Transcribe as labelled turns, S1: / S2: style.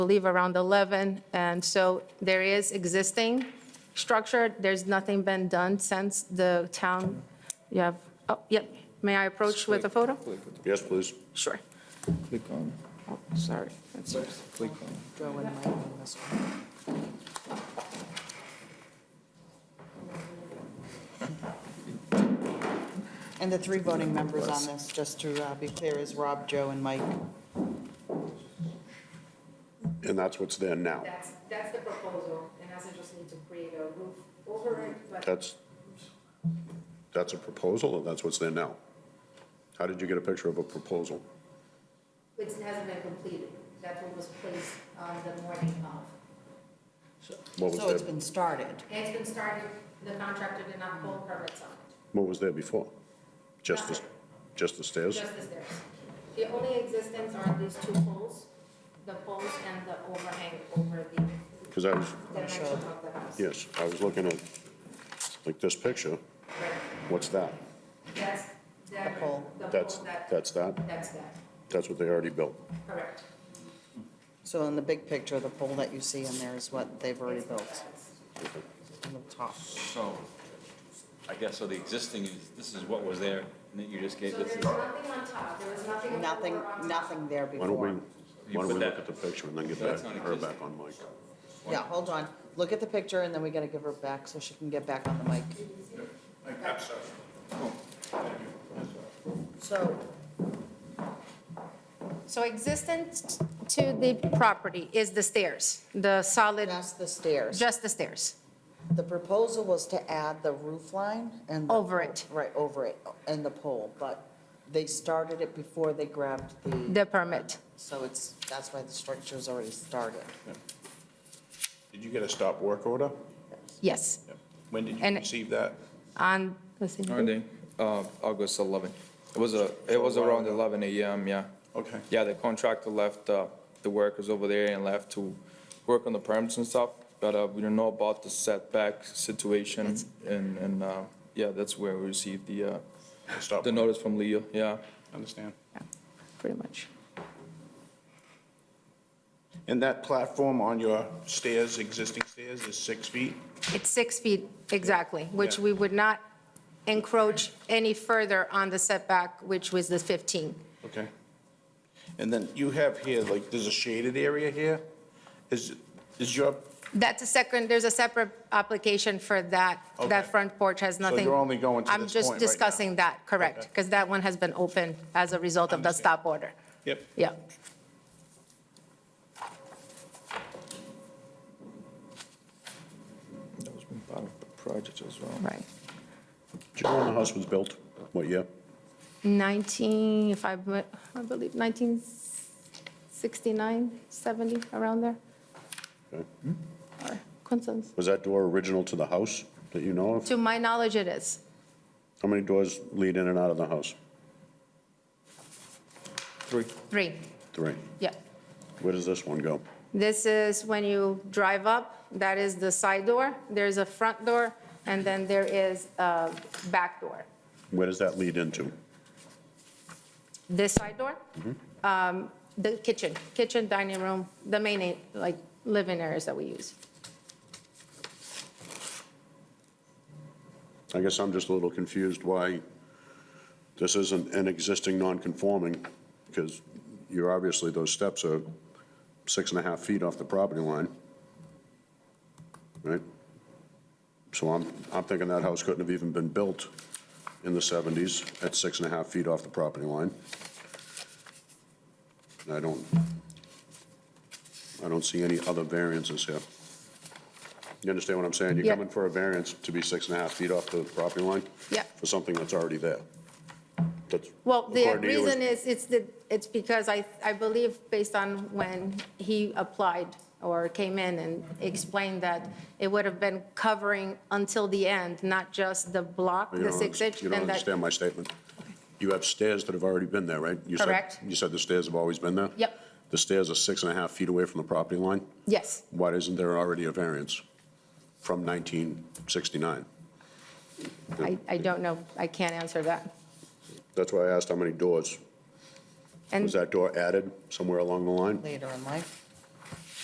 S1: believe around 11. And so there is existing structure. There's nothing been done since the town, you have, oh, yep. May I approach with a photo?
S2: Yes, please.
S1: Sure.
S3: Click on,
S1: Oh, Sorry. That's-
S3: click on.
S4: Go in my- on this one. And the three voting members on this, just to uh, be clear, is Rob, Joe, and Mike.
S2: And that's what's there now.
S1: That's, that's the proposal, and as I just need to create a roof over it, but
S2: That's, that's a proposal, and that's what's there now. How did you get a picture of a proposal?
S1: it hasn't been completed. That's what was placed on the morning of.
S2: What
S4: So
S2: was
S4: it's
S2: there,
S4: been started.
S1: It's been started, the contractor did not pull permits on it,
S2: what was there before? Just the, just the stairs?
S1: just the stairs. The only existence are these two poles, the poles and the overhang over the
S2: Because I was,
S1: dimension of the house.
S2: yes, I was looking at, like, this picture,
S1: Right.
S2: what's that?
S1: That's, that,
S4: The
S1: the
S4: pole.
S1: pole,
S2: That's,
S1: that,
S2: that's that?
S1: that's that,
S2: That's what they already built?
S1: correct.
S4: So in the big picture, the pole that you see in there is what they've already built on the top.
S5: So, I guess, so the existing is, this is what was there, and then you just gave
S1: So
S5: this,
S1: there's nothing on top, there was nothing. on the
S4: Nothing,
S1: floor on top.
S4: nothing there
S2: Why don't we,
S4: before.
S2: why don't we
S5: But
S2: look
S5: that-
S2: at the picture and then get
S5: so
S2: back,
S5: that's not
S2: her back
S5: existing.
S2: on mic?
S4: Yeah, hold on. Look at the picture, and then we gotta give her back so she can get back on the mic. So,
S1: So existence to the property is the stairs, the solid,
S4: that's the stairs.
S1: just the stairs.
S4: The proposal was to add the roof line and. the-
S1: Over it.
S4: Right, over it, and the pole, but they started it before they grabbed the,
S1: The permit.
S4: so it's, that's why the structure's already started.
S6: Did you get a stop work order?
S1: Yes,
S6: When did you
S1: And-
S6: receive that?
S1: on, let's see.
S7: Monday, uh, August 11. It was a, it was around 11 AM, yeah.
S6: Okay.
S7: Yeah, the contractor left, uh, the workers over there and left to work on the permits and stuff, but uh, we don't know about the setback situation, and, and, uh, yeah, that's where we received the, uh,
S6: Stop.
S7: the notice from Leo, yeah.
S6: Understand.
S1: pretty much.
S6: And that platform on your stairs, existing stairs, is six feet?
S1: It's six feet exactly, which
S6: Yeah.
S1: we would not encroach any further on the setback, which was the 15.
S6: Okay. And then you have here, like, there's a shaded area here? Is, is your,
S1: That's a second, there's a separate application for that. That
S6: Okay.
S1: front porch has
S6: you're
S1: nothing.
S6: only going to
S1: I'm
S6: this
S1: just
S6: point right now?
S1: discussing that, correct,
S6: Okay.
S1: because that one has been open as a result of the
S6: Understand.
S1: stop order.
S6: yep,
S1: Yeah.
S7: That was part of the project as well.
S1: Right.
S2: Do you know when the house was built? What year?
S1: 19, if I, be- I believe 1969, 70, around there.
S2: Okay.
S1: Or Consensus.
S2: Was that door original to the house that you know of?
S1: To my knowledge, it is.
S2: How many doors lead in and out of the house?
S7: Three.
S1: Three,
S2: Three.
S1: yeah.
S2: Where does this one go?
S1: This is when you drive up, that is the side door, there's a front door, and then there is a back door.
S2: Where does that lead into?
S1: This side door,
S2: Mm-hmm.
S1: um, the kitchen, kitchen, dining room, the main, like, living areas that we use.
S2: I guess I'm just a little confused why this isn't an existing non-conforming, because you're obviously, those steps are six and a half feet off the property line, right? So I'm, I'm thinking that house couldn't have even been built in the 70s at six and a half feet off the property line. And I don't, I don't see any other variances here. You understand what I'm saying? You're
S1: Yeah.
S2: coming for a variance to be six and a half feet off the property line?
S1: Yeah.
S2: For something that's already there. That's,
S1: Well, the
S2: according to you, is-
S1: reason is, it's the, it's because I, I believe based on when he applied or came in and explained that it would have been covering until the end, not just the block,
S2: you
S1: the
S2: don't
S1: six
S2: underst-
S1: inch.
S2: You don't
S1: and that-
S2: understand my statement. You have stairs that have already been there, right? You said-
S1: Correct.
S2: You said the stairs have always been there?
S1: Yep.
S2: The stairs are six and a half feet away from the property line?
S1: Yes,
S2: Why isn't there already a variance from 1969?
S1: I, I don't know. I can't answer that.
S2: That's why I asked how many doors.
S1: And
S2: Was that door added somewhere along the line?
S4: Later in life.